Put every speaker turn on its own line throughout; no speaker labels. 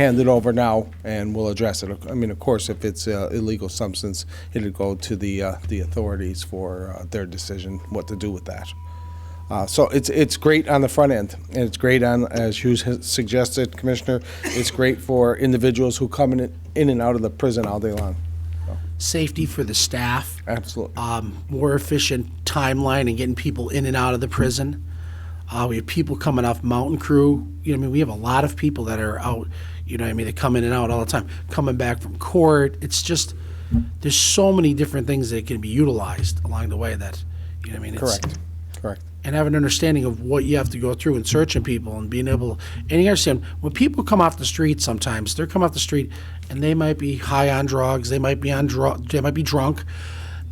hand it over now, and we'll address it. I mean, of course, if it's uh, illegal substance, it'll go to the, uh, the authorities for uh, their decision what to do with that. Uh, So it's, it's great on the front end, and it's great on, as Hughes has suggested, Commissioner, it's great for individuals who come in, in and out of the prison all day long.
safety for the staff,
Absolutely.
um, more efficient timeline and getting people in and out of the prison. Uh, we have people coming off Mountain Crew. You know, I mean, we have a lot of people that are out. You know, what I mean, they come in and out all the time, coming back from court. It's just there's so many different things that can be utilized along the way. That you know, what I mean, it's,
Correct, correct.
and have an understanding of what you have to go through in searching people and being able and you understand when people come off the street sometimes they're come off the street and they might be high on drugs they might be on drug they might be drunk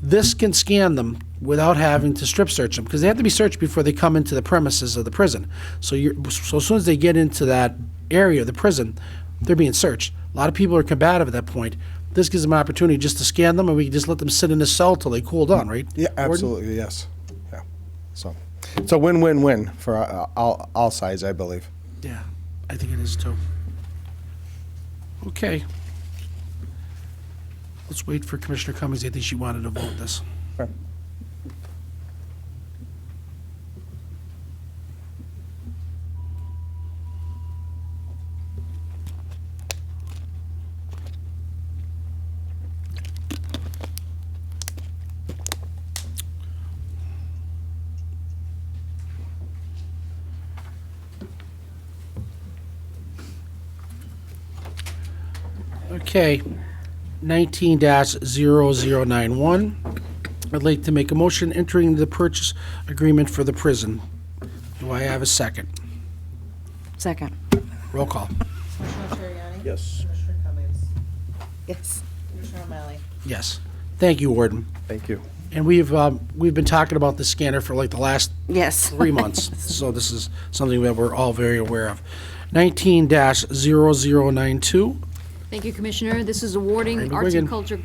this can scan them without having to strip search them because they have to be searched before they come into the premises of the prison so you're so as soon as they get into that area of the prison they're being searched a lot of people are combative at that point this gives them an opportunity just to scan them and we can just let them sit in a cell till they cool down right
Yeah,
Gordon?
absolutely, yes. Yeah, so, it's a win-win-win for uh, all, all sides, I believe.
Yeah, I think it is too. Okay. Let's wait for Commissioner Cummings. I think she wanted to vote this.
Okay.
Okay, nineteen dash zero zero nine one. I'd like to make a motion entering the purchase agreement for the prison. Do I have a second?
Second.
Roll call.
Commissioner Terriani?
Yes.
Commissioner Cummings?
Yes.
Commissioner O'Malley?
Yes. Thank you, Warden.
Thank you.
And we've, um, we've been talking about the scanner for like the last
Yes.
three months. So this is something that we're all very aware of. Nineteen dash zero zero nine two.
Thank you, Commissioner. This is awarding
Randy
arts
Wiggin.
and culture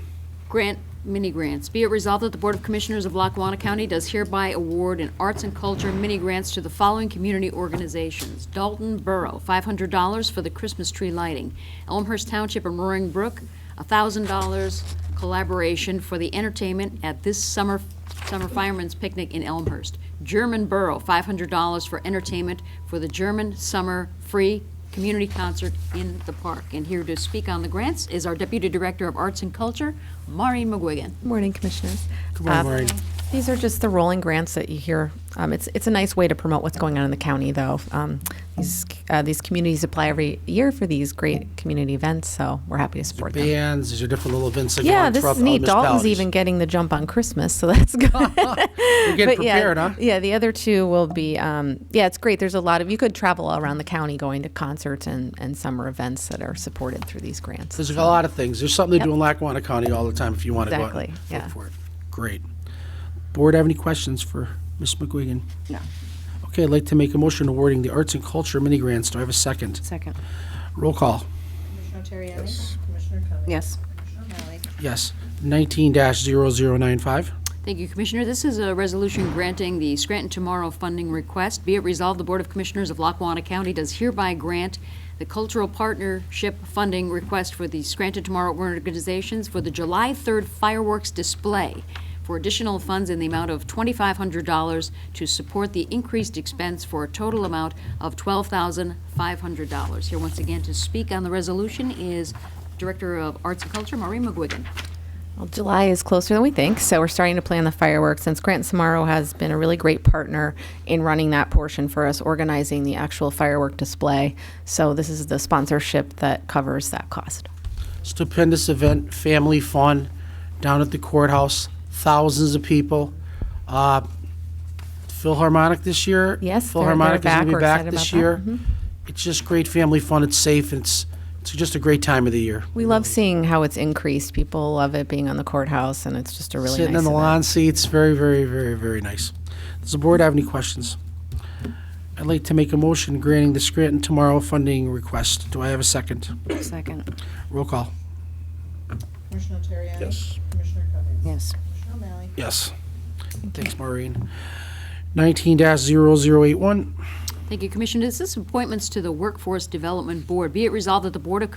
grant mini-grants. Be it resolved that the Board of Commissioners of Lackawanna County does hereby award an arts and culture mini-grants to the following community organizations. Dalton Borough, $500 for the Christmas tree lighting. Elmhurst Township and Roaring Brook, $1,000 collaboration for the entertainment at this summer, summer firemen's picnic in Elmhurst. German Borough, $500 for entertainment for the German Summer Free community concert in the park. And here to speak on the grants is our Deputy Director of Arts and Culture, Maureen McGuigan.
Morning, Commissioners.
Good morning,
Uh,
Maureen.
These are just the rolling grants that you hear. Um, It's, it's a nice way to promote what's going on in the county, though. Um, These, uh, these communities apply every year for these great community events, so we're happy to support them.
bands. These are different little events that go
Yeah,
on
this
throughout
is
the
neat. Dalton's
municipalities.
even getting the jump on Christmas, so that's good.
We're getting
But yeah,
prepared, huh?
Yeah, the other two will be, um, yeah, it's great. There's a lot of, you could travel around the county going to concerts and, and summer events that are supported through these grants.
There's a lot of things. There's something to do in Lackawanna County all the time if you want to go out and
Exactly, yeah.
look for it. Great. Board have any questions for Ms. McGuigan?
No.
Okay, I'd like to make a motion awarding the arts and culture mini grants. Do I have a second?
Second.
Roll call.
Commissioner Terriani? Commissioner Cummings?
Yes.
Commissioner O'Malley?
Yes. 19-0095.
Thank you, Commissioner. This is a resolution granting the Scranton Tomorrow funding request. Be it resolved, the Board of Commissioners of Lackawanna County does hereby grant the cultural partnership funding request for the Scranton Tomorrow organizations for the July 3rd fireworks display for additional funds in the amount of $2,500 to support the increased expense for a total amount of $12,500. Here once again to speak on the resolution is Director of Arts and Culture, Maureen McGuigan.
Well, July is closer than we think, so we're starting to plan the fireworks. And Scranton Samaro has been a really great partner in running that portion for us, organizing the actual firework display. So this is the sponsorship that covers that cost.
stupendous event, family fun, down at the courthouse, thousands of people. Uh, Philharmonic this year.
Yes, they're-
Philharmonic
they're
is going to be
back. We're
back
excited
this
about
year.
that. Mm-hmm.
It's just great family fun. It's safe. and It's it's just a great time of the year.
We love seeing how it's increased. People love it being on the courthouse, and it's just a really
Sitting
nice
in the
event.
lawn seats, very, very, very, very nice. Does the board have any questions? I'd like to make a motion granting the Scranton Tomorrow funding request. Do I have a second?
Second.
Roll call.
Commissioner Terriani? Yes. Commissioner Cummings?
Yes.
Commissioner O'Malley?
Yes. Thanks, Maureen. 19-0081.
Thank you, Commissioner. This is appointments to the Workforce Development Board. Be it resolved that the Board of